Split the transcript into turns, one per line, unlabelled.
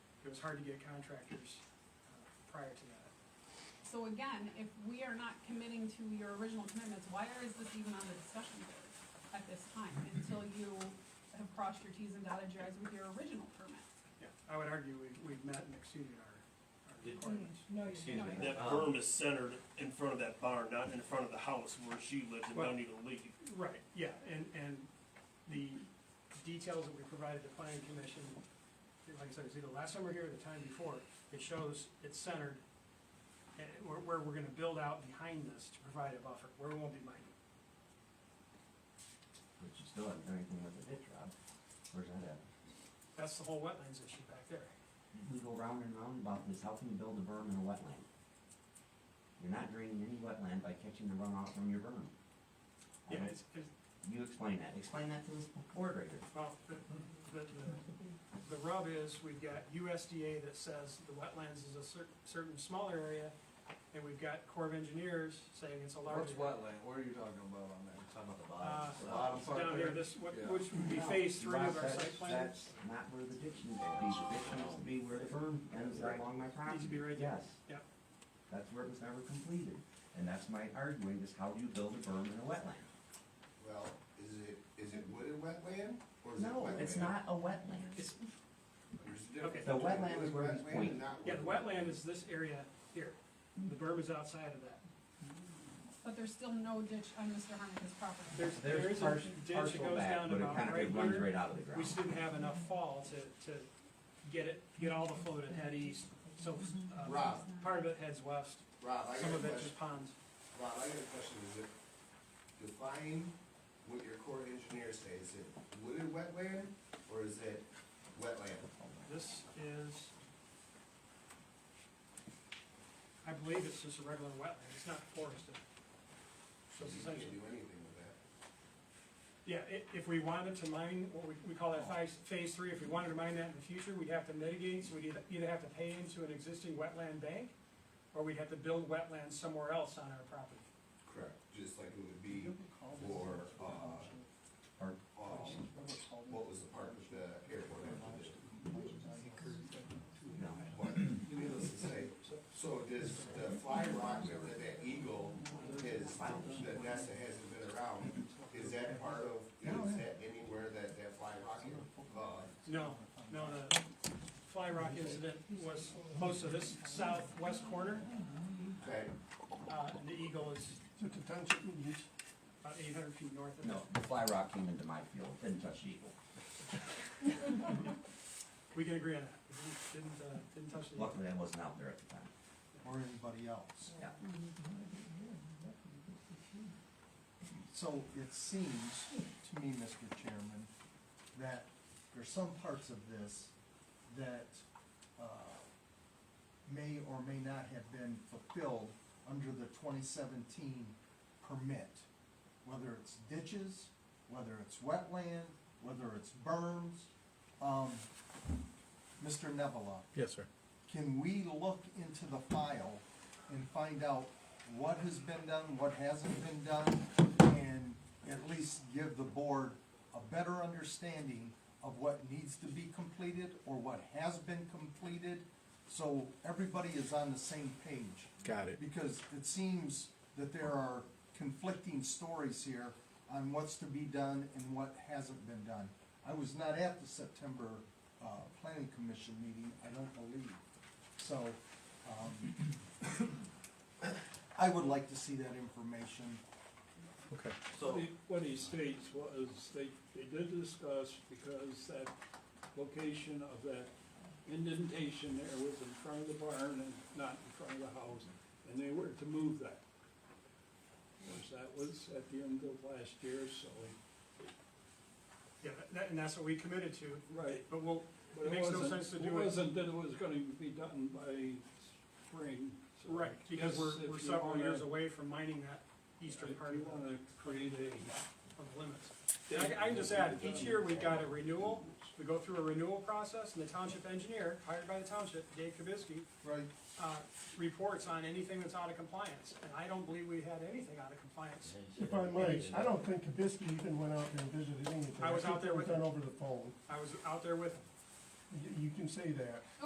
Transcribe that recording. was hard to get contractors uh, prior to that.
So again, if we are not committing to your original commitments, why is this even on the discussion board at this time until you have crossed your Ts and dotted your Is with your original permit?
Yeah, I would argue we've, we've met and exceeded our, our
Did-
requirements.
No,
Excuse me.
you're
That
Um,
berm is centered in front of that barn, not in front of the house where she lives and don't even leave.
Right, yeah, and, and the details that we provided the planning commission, like I said, it's either last summer here or the time before, it shows it's centered, and where, where we're gonna build out behind this to provide a buffer, where it won't be mined.
But you still haven't done anything with the ditch, Rob. Where's that at?
That's the whole wetlands issue back there.
We go round and round about this, how can you build a berm in a wetland? You're not draining any wetland by catching the runoff from your berm. I
Yeah,
don't-
it's, it's,
You explain that, explain that to this board right here.
well, the, the, the- the rub is, we've got USDA that says the wetlands is a cer- certain smaller area, and we've got Corps of Engineers saying it's a larger.
What's wetland, what are you talking about on that? Talking about the
Uh,
The bottom part
down here,
there?
this, what-
Yeah.
which would be phase three of our
That's-
site plan.
That's not where the ditch needs to be, the ditch needs to be where the berm ends
Right.
along my property.
Needs to be right there.
Yes.
Yep.
That's where it was never completed, and that's my arguing, is how do you build a berm in a wetland?
Well, is it, is it wooded wetland or is it
No,
wetland?
it's not a wetland.
It's-
There's a difference.
Okay.
The
between
wetland is
wooded
where he's
wetland and
pointing.
not
Yeah, the
wooded
wetland is this area here. The berm is outside of that.
But there's still no ditch on Mr. Harmon's property.
There's, there is a
pars-
ditch that
partial
goes
back,
down
but it
about
kind of-
right
it runs
here.
right out of the
We
ground.
just didn't have enough fall to, to get it, get all the flow that head east. So, uh,
Rob.
part of it heads west,
Rob, I
some
got a
of it
question,
just ponds.
Rob, I got a question, is it, define what your Corps of Engineers say, is it wooded wetland or is it wetland?
This is, I believe it's just a regular wetland. It's not forested. So
So
it's
you can't
essentially.
do anything with that.
Yeah, i- if we wanted to mine, what we, we call that phase, phase three, if we wanted to mine that in the future, we'd have to mitigate, so we'd either- either have to pay into an existing wetland bank, or we'd have to build wetlands somewhere else on our property.
Correct, just like it would be for, uh,
Park.
um, what was the park with the airport after this?
No.
But needless to say, so does the fly rock that that that eagle is, that nest that hasn't been around, is that part of, is that anywhere that that fly rock, uh,
No, no, the Fly Rock incident was close to this southwest corner,
that
uh, and the Eagle is about eight hundred feet north of
No,
that.
the fly rock came into my field, didn't touch the eagle.
We can agree on that, didn't, didn't, uh, didn't touch the.
Luckily, I wasn't out there at the time.
Or anybody else?
Yeah.
So it seems to me, Mr. Chairman, that there's some parts of this that, uh, may or may not have been fulfilled under the twenty seventeen permit. Whether it's ditches, whether it's wetland, whether it's berms, um, Mr. Nevela.
Yes, sir.
can we look into the file and find out what has been done, what hasn't been done, and at least give the board a better understanding of what needs to be completed or what has been completed, so everybody is on the same page?
Got it.
Because it seems that there are conflicting stories here on what's to be done and what hasn't been done. I was not at the September, uh, planning commission meeting, I don't believe. So, um, I would like to see that information.
Okay.
What he- What he states was, they, they did discuss because that location of that indentation there was in front of the barn and not in front of the house, and they were to move that. Of course, that was at the end of last year, so,
Yeah, that, and that's what we committed to,
right.
but we'll,
But
It makes no
wasn't-
sense to do it-
wasn't that it was gonna be done by spring. so
right, because we're,
if
we're
you
several
wanna-
years away from mining that eastern
If
part
you
of the,
wanna create a
of the limits. And I, I can just add, each year we got a renewal, we go through a renewal process, and the township engineer, hired by the township, Dave Kibisky,
Right.
uh, reports on anything that's out of compliance, and I don't believe we had anything out of compliance.
If I might, I don't think Kabisky even went out there and visited anything.
I was out there with
It was done over the phone.
I was out there with
You- You can say that.